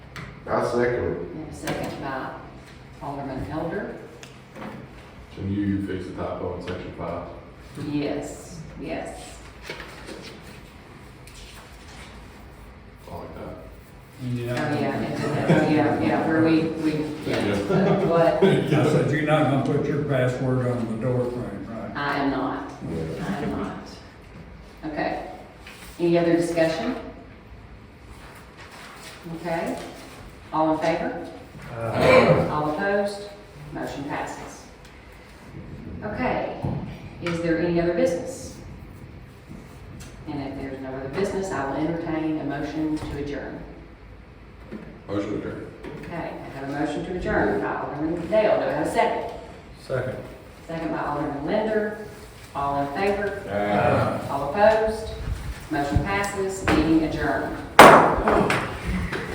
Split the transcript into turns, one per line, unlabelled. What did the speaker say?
I second
And a second by Alderman Elder.
Can you fix the typo in section five?
Yes, yes.
I like that.
Oh,
Yeah.
yeah, and then- yeah, yeah, where we, we, yeah. What?
I said, you're not gonna put your password on the door frame, right?
I am not.
it.
I am not. Okay. Any other discussion? Okay. All in favor? All opposed? Motion passes. Okay. Is there any other business? And if there's no other business, I will entertain a motion to adjourn.
Motion adjourned.
Okay, I have a motion to adjourn by Alderman Dale. Do I have a second? Second. Second by Alderman Linder. All in favor?
Uh,
All opposed? Motion passes, meeting adjourned.